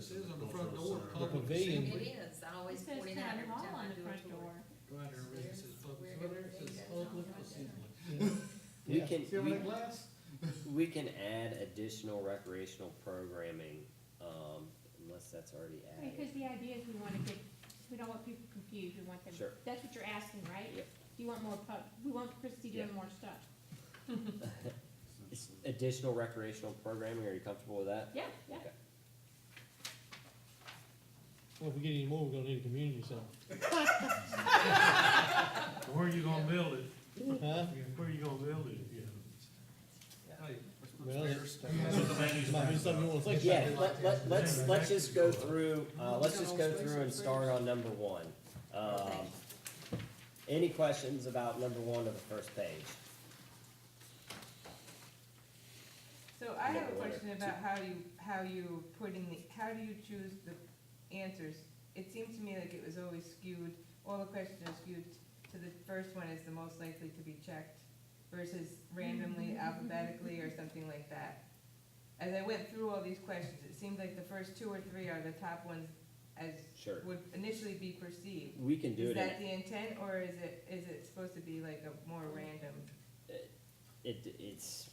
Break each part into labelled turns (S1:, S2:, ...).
S1: says on the front door,
S2: The
S1: public
S3: pavilion.
S1: assembly.
S4: It is, I always
S3: It says
S4: point it out
S3: town
S4: every
S3: hall
S4: time
S3: on
S4: I
S3: the
S4: do a
S3: front
S4: tour.
S3: door.
S1: Right, our
S4: Upstairs
S1: business is
S4: is
S1: public,
S4: where
S1: so it
S4: everything
S1: says
S4: goes on
S1: public
S4: like that.
S1: assembly.
S5: We
S3: Yeah.
S5: can,
S1: See all
S5: we,
S1: that glass?
S5: we can add additional recreational programming, um, unless that's already added.
S3: Because the idea is we wanna get, we don't want people confused, we want them,
S5: Sure.
S3: that's what you're asking, right?
S5: Yep.
S3: You want more pub, we want Christie doing
S5: Yeah.
S3: more stuff.
S5: It's Additional recreational programming, are you comfortable with that?
S3: Yeah, yeah.
S5: Okay.
S6: Well, if we get any more, we're gonna need a community center.
S2: Where you gonna build it?
S5: Mm.
S6: Huh?
S2: Where you gonna build it, yeah?
S1: Hey,
S6: Well,
S1: upstairs.
S6: Might be something you wanna think about.
S5: Yeah, let, let, let's, let's just go through, uh, let's just go through and start on number one. Um, any questions about number one of the first page?
S7: So I have a
S5: Number one or
S7: question
S5: two.
S7: about how you, how you putting the, how do you choose the answers? It seemed to me like it was always skewed, all the questions are skewed to the first one is the most likely to be checked versus randomly
S3: Mm-hmm.
S7: alphabetically or something like that. As I went through all these questions, it seemed like the first two or three are the top ones as
S5: Sure,
S7: would initially be perceived.
S5: we can do
S7: Is
S5: it, in-
S7: that the intent or is it, is it supposed to be like a more random?
S5: it, it's,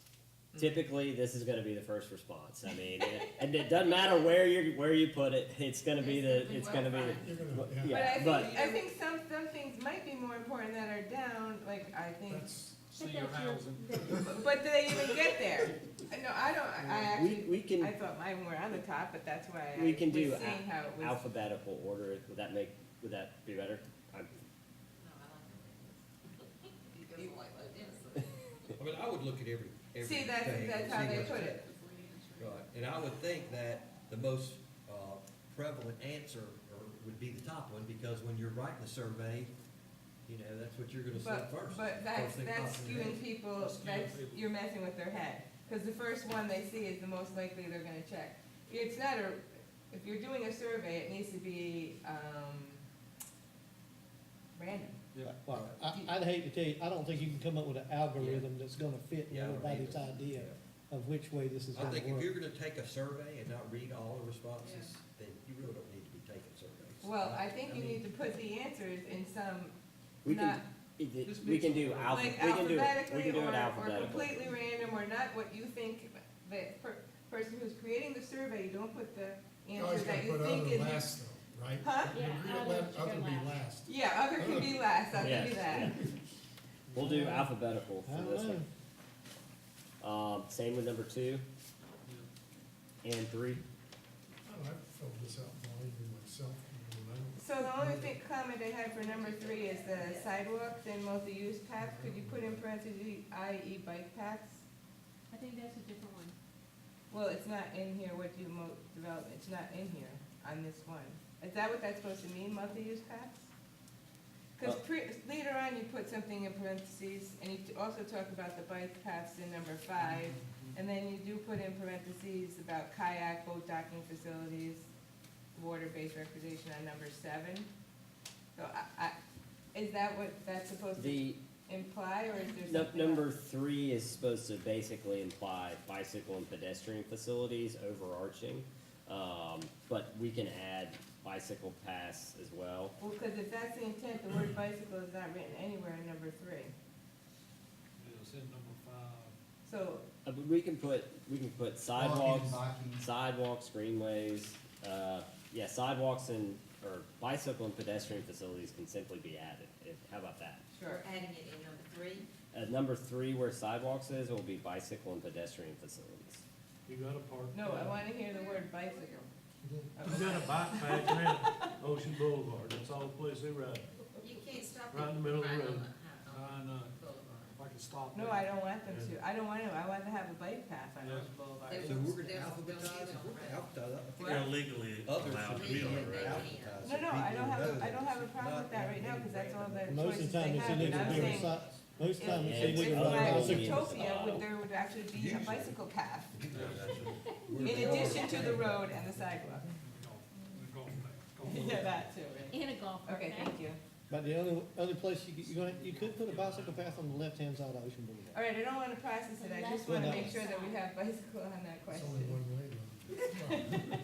S5: typically, this is gonna be the first response, I mean, and it doesn't matter where you, where you put it, it's gonna be the, it's gonna be the,
S4: Well,
S7: But I
S5: yeah, but.
S7: think, I think some, some things might be more important that are down, like, I think,
S3: But that's your- that-
S7: but do they even get there? No, I don't, I- I
S5: We,
S7: actually,
S5: we
S7: I
S5: can
S7: thought mine were on the top, but that's why I
S5: We
S7: was
S5: can
S7: seeing
S5: do
S7: how it was.
S5: alphabetical order, it. would that make, would that be better? I'm-
S4: No, I like it. It goes like this.
S8: I mean, I would look at every, everything.
S7: See, that's, that's how
S8: see
S7: they
S8: what's-
S7: put it.
S8: Right, and I would think that the most, uh, prevalent answer or would be the top one, because when you're writing the survey, you know, that's what you're gonna say
S7: But,
S8: first.
S7: but
S8: first
S7: that's,
S8: thing
S7: that's
S8: pops in your head.
S7: skewing people,
S1: That's skewing
S7: that's,
S1: people.
S7: you're messing with their head. Cause the first one they see is the most likely they're gonna check. It's not a, if you're doing a survey, it needs to be, um, random.
S1: Yeah.
S6: Well, I, I'd hate to tell you, I don't think you can come up with an algorithm that's gonna fit
S8: Yeah, I don't
S6: everybody's
S8: either.
S6: idea of which way this is
S8: I
S6: gonna
S8: think if
S6: work.
S8: you're gonna take a survey and not read all the responses, then you really don't need to be taking surveys.
S7: Well, I think you
S8: mean,
S7: need to put the answers in some,
S5: We
S7: not,
S5: can, it- it-
S1: Just
S5: we can
S1: mix
S5: do
S1: them.
S5: alpha, we
S7: like
S5: can do it, we
S7: alphabetically
S5: can do
S7: or,
S5: it
S7: or
S5: alphabetical.
S7: completely random, or not what you think, the per, person who's creating the survey, don't put the answer that you think is.
S2: though, right?
S7: Huh?
S3: Yeah,
S2: Agree
S3: other
S2: let
S3: should go last.
S2: last.
S7: Yeah, other can be last, other can
S5: Yes,
S7: be that.
S5: yeah. We'll do alphabetical
S6: I
S5: for
S6: don't
S5: this
S6: know.
S5: one. Um, same with number two and three.
S2: Oh, I filled this out more even myself, I don't
S7: So the only thing, comment I had for number three is the sidewalks and multi-use paths, could you put in parentheses, i.e. bike paths?
S3: I think that's a different one.
S7: Well, it's not in here, what do you mo- develop, it's not in here on this one. Is that what that's supposed to mean, multi-use paths? Cause
S5: Uh.
S7: pre, later on, you put something in parentheses, and you t- also talk about the bike paths in number five, and then you do put in parentheses about kayak, boat docking facilities, water-based recreation on number seven. So I, I, is that what that's supposed to
S5: The,
S7: imply, or is there
S5: num-
S7: something? else?
S5: number three is supposed to basically imply bicycle and pedestrian facilities overarching. Um, but we can add bicycle paths as well.
S7: Well, cause if that's the intent, the word bicycle is not written anywhere in number three.
S1: It's in number five.
S7: So,
S5: Uh, but we can put, we can put sidewalks, sidewalks, greenways, uh, yeah, sidewalks and, or bicycle and pedestrian facilities can simply be added. If, how about that?
S7: sure.
S4: We're adding it in number three.
S5: At number three, where sidewalks is, will be bicycle and pedestrian facilities.
S2: You got a park.
S7: No, I wanna hear the word bicycle.
S2: You got a bike path around Ocean Boulevard, that's all the place they ride.
S4: You can't stop.
S2: Right in the
S4: it
S2: middle of the
S4: right on
S2: road.
S4: the- on
S1: I know,
S4: the boulevard.
S1: if I could stop.
S7: No,
S1: there.
S7: I don't want them to. I don't want to. I want to have a bike path on Ocean Boulevard.
S4: They
S8: So
S4: won't-
S8: we're gonna
S4: they won't go
S8: alphabetize,
S4: either
S8: if we're gonna
S4: way.
S8: alphabetize, I think
S7: Well,
S9: legally
S8: others
S9: allowed to
S8: should
S9: be on
S8: be
S9: the road.
S8: alphabetized.
S7: No, no, I don't have, a I don't have a problem
S8: Not
S7: with that right now,
S8: being
S7: because that's all the
S6: Most of
S7: choices
S6: the
S7: they
S6: time, it's
S7: have,
S6: illegal
S7: and
S6: to
S7: I'm
S6: do a
S7: saying,
S6: si- most of the time, it's
S5: Yeah,
S7: if,
S6: illegal
S7: if
S6: to
S7: I
S6: ride
S7: was
S6: bicycles.
S7: utopia, would, there would actually be a bicycle path, in
S8: We're-
S7: addition to the road and the sidewalk.
S1: Golf- golf bag, golf
S7: Yeah,
S1: bag.
S7: that too, right?
S3: In a golf cart. eh?
S7: Okay, thank you.
S6: But the only, other place you could, you're gonna, you could put a bicycle path on the left-hand side of Ocean Boulevard.
S7: All right, I don't want to process it. I just want to make sure that we have bicycle on that question.
S2: one way, though.